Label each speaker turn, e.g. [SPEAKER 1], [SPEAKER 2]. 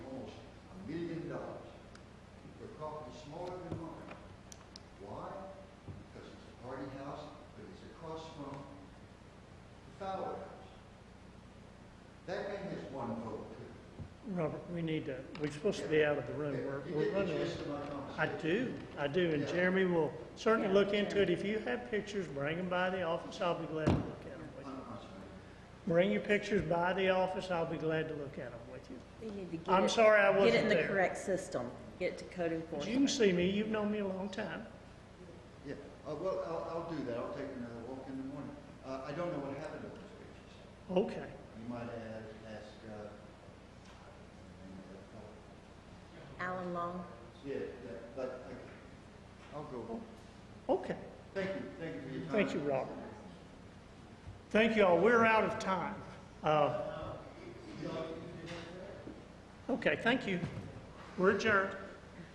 [SPEAKER 1] block is smaller than mine. Why? Because it's a party house, but it's across from the Fowler House. That man has one vote too.
[SPEAKER 2] Robert, we need to, we're supposed to be out of the room.
[SPEAKER 1] You
[SPEAKER 2] We're, we're
[SPEAKER 1] get the
[SPEAKER 2] running.
[SPEAKER 1] gist of my
[SPEAKER 2] I
[SPEAKER 1] conversation.
[SPEAKER 2] do, I do, and
[SPEAKER 1] Yeah.
[SPEAKER 2] Jeremy will certainly
[SPEAKER 3] Yeah,
[SPEAKER 2] look into it.
[SPEAKER 3] Jeremy.
[SPEAKER 2] If you have pictures, bring them by the office, I'll be glad to look at them with
[SPEAKER 1] I'm-
[SPEAKER 2] you.
[SPEAKER 1] I'm sorry.
[SPEAKER 2] Bring your pictures by the office, I'll be glad to look at them with you.
[SPEAKER 3] We need to get
[SPEAKER 2] I'm
[SPEAKER 3] it-
[SPEAKER 2] sorry I
[SPEAKER 3] Get it
[SPEAKER 2] wasn't
[SPEAKER 3] in the
[SPEAKER 2] there.
[SPEAKER 3] correct system, get it to code
[SPEAKER 2] But You can
[SPEAKER 3] enforcement.
[SPEAKER 2] see me, you've known me a long time.
[SPEAKER 1] Yeah, uh, well, I'll, I'll do that, I'll take another walk in the morning. Uh, I don't know what happened to those pictures.
[SPEAKER 2] Okay,
[SPEAKER 1] You might ask, ask, uh, uh,
[SPEAKER 3] Alan Long,
[SPEAKER 1] yeah, yeah, but, okay. I'll go.
[SPEAKER 2] okay.
[SPEAKER 1] Thank you, thank you for your time.
[SPEAKER 2] Thank you, Robert. Thank you all. We're out of time. Uh, Okay, thank you. We're adjourned.